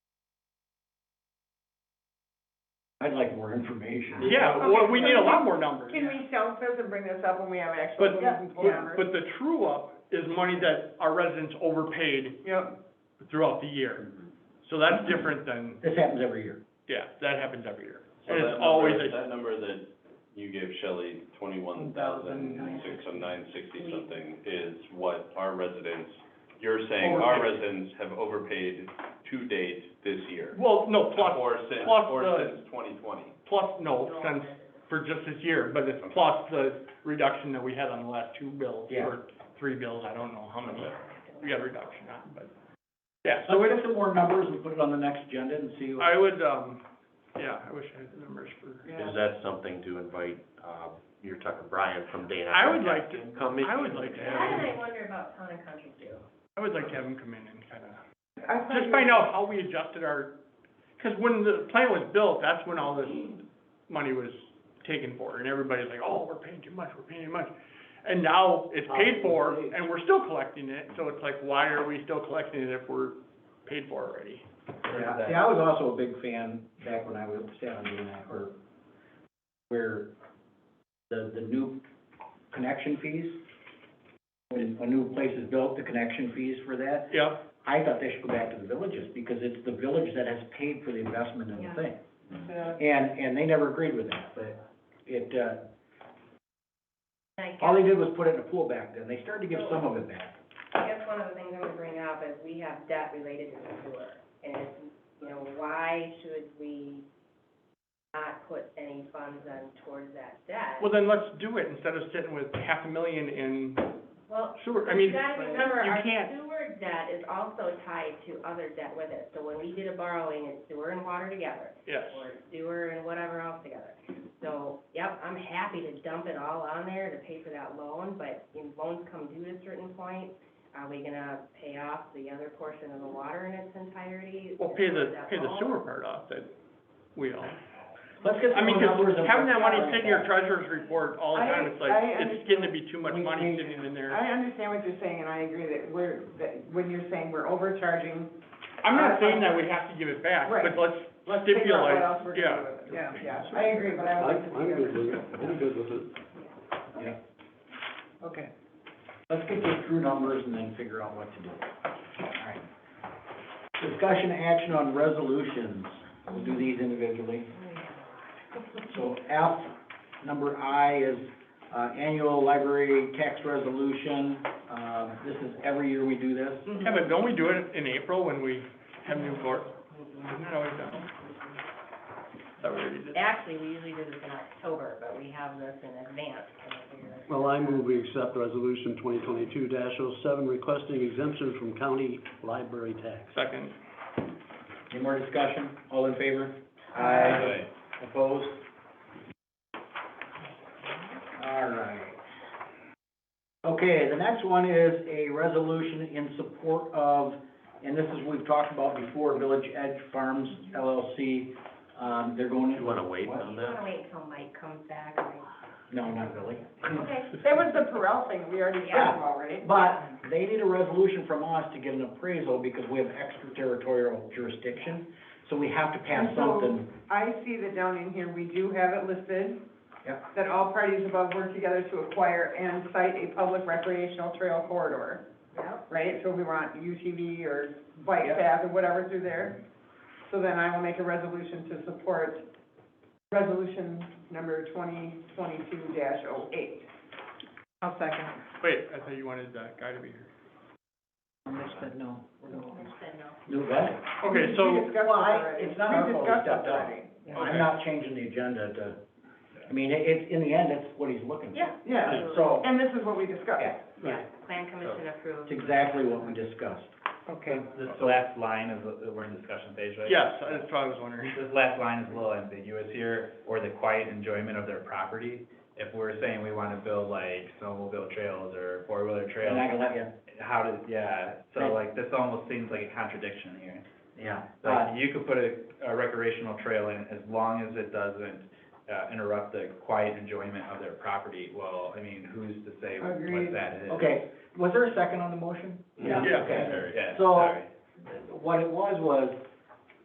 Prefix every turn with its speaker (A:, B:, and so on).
A: I'd like more information.
B: Yeah, well, we need a lot more numbers.
C: Can we shelf this and bring this up when we have actual
B: But,
C: meetings?
B: but, but the true up is money that our residents overpaid
C: Yep,
B: throughout the year. So that's different than,
A: This happens every year.
B: yeah, that happens every year.
D: So
B: And
D: that
B: it's
D: number-
B: always a
D: That number that you gave Shelley, twenty-one thousand six oh nine sixty something, is what our residents, you're saying our
B: Overpaid.
D: residents have overpaid to date this year?
B: Well, no, plus,
D: Or since,
B: plus
D: or
B: the-
D: since twenty twenty?
B: plus, no, since, for just this year, but it's plus the reduction that we had on the last two bills,
A: Yeah.
B: or three bills, I don't know how many we got a reduction on, but, yeah,
A: So we get some more numbers and put it on the next agenda and see.
B: I would, um, yeah, I wish I had the numbers for,
C: yeah.
E: Is that something to invite, uh, you're talking Brian from Dana?
B: I would like to,
E: Come in.
B: I would like to
F: Why
B: have,
F: did I wonder about town and country too?
B: I would like to have him come in and kinda,
C: I thought
B: just
C: you-
B: find out how we adjusted our, cause when the plant was built, that's when all this money was taken for, and everybody's like, oh, we're paying too much, we're paying too much. And now it's paid for, and we're still collecting it, so it's like, why are we still collecting it if we're paid for already?
A: Yeah, see, I was also a big fan back when I was down on DNI, or where the, the new connection fees, when a new place is built, the connection fees for that,
B: Yeah,
A: I thought they should go back to the villages, because it's the village that has paid for the investment in the
F: Yeah.
A: thing.
C: Yeah.
A: And, and they never agreed with that, but it, uh,
F: And I
A: all they
F: guess,
A: did was put it in a pool back then, they started to give some of it back.
F: I guess one of the things I'm gonna bring up is we have debt related to the sewer. And, it's, you know, why should we not put any funds on towards that debt?
B: well then let's do it, instead of sitting with half a million in
F: Well,
B: sewer, I mean,
F: you gotta remember,
B: you
F: our
B: can't-
F: sewer debt is also tied to other debt with it. So when we did a borrowing, it's sewer and water together.
B: yes.
F: or sewer and whatever else together. So, yep, I'm happy to dump it all on there to pay for that loan, but when loans come due at a certain point, are we gonna pay off the other portion of the water in its entirety?
B: Well, pay the,
F: That
B: pay the
F: loan?
B: sewer part off that we own.
A: Let's get
B: I
A: some
B: mean,
A: more
B: 'cause
A: numbers and.
B: having that money
A: bring it
B: sit in your
A: back.
B: treasurer's report all the
C: I-
B: time, it's like,
C: I
B: it's getting to be too much
A: We-
B: money
A: we-
B: sitting in there.
C: I understand what you're saying, and I agree that we're, that when you're saying we're overcharging,
B: I'm
C: I-
B: not saying that we have to give it back,
C: Right.
B: but let's
C: let's figure out what
B: stipulate,
C: else we're
B: yeah.
C: gonna do with it. Yeah, yeah, I agree, but I would like to see.
G: I'm good with it,
C: everything.
G: I'm good with it.
C: Okay.
A: Let's get the true numbers and then figure out what to do. Alright. Discussion action on resolutions. We'll do these individually. So F, number I is, uh, annual library tax resolution. Uh, this is every year we do this.
F: Mm-hmm.
B: Yeah, but don't we do it in April when we have new board? Isn't that always done? That we already did.
F: Actually, we usually do this in October, but we have this in advance. kind of figure.
G: Well, I move we accept resolution twenty twenty-two 7 requesting exemption from county library tax.
B: Second,
A: Any more discussion? All in favor?
D: Anyway,
A: Opposed? All right. Okay, the next one is a resolution in support of, and this is, we've talked about before, Village Edge Farms LLC. Um, they're going
E: Do you
A: into,
E: wanna wait
F: Do
E: on
F: you
E: that?
F: wanna wait until Mike comes back? or-
A: no, not really.
F: Okay.
C: That was the Perel thing, we already
A: Yeah.
C: got them already.
A: But they need a resolution from us to get an appraisal because we have extraterritorial jurisdiction, so we have to pass
C: And so-
A: something.
C: I see that down in here, we do have it listed.
A: Yep.
C: That all parties above work together to acquire and site a public recreational trail corridor,
F: Yep.
C: right? So we want UTV or bike
A: Yep.
C: path or whatever through there. So then I will make a resolution to support resolution number twenty twenty-two 8 oh eight. I'll second.
B: wait, I thought you wanted that guy to be here.
A: But no.
F: I said no.
A: No, what?
C: We
B: Okay, so,
C: discussed this
A: Well, I-
C: already.
A: it's not our fault we
C: discussed this
A: stepped up.
C: already.
A: I'm not changing the agenda to, I mean, it, it's, in the end, that's what he's looking for.
F: Yeah.
C: Yeah,
A: So,
C: and this is what we discussed.
F: Yeah, plan commission approved.
A: it's exactly what we discussed.
C: Okay.
H: This last line is, we're in discussion phase, right?
B: yes, that's what I was wondering.
H: This last line is a little ambiguous here, or the quiet enjoyment of their property. If we're saying we wanna build like snowmobile trails or four-wheeler
A: And I
H: trails,
A: can let you,
H: how does, yeah, so
A: Right.
H: like, this almost seems like a contradiction here.
A: yeah, but,
H: Like, you could put a, a recreational trail in as long as it doesn't, uh, interrupt the quiet enjoyment of their property. Well, I mean, who's to say what
C: Agreed.
H: that is?
A: okay, was there a second on the motion?
B: Yeah.
A: Okay.
H: Yeah,
A: So-
H: sorry.
A: What it was, was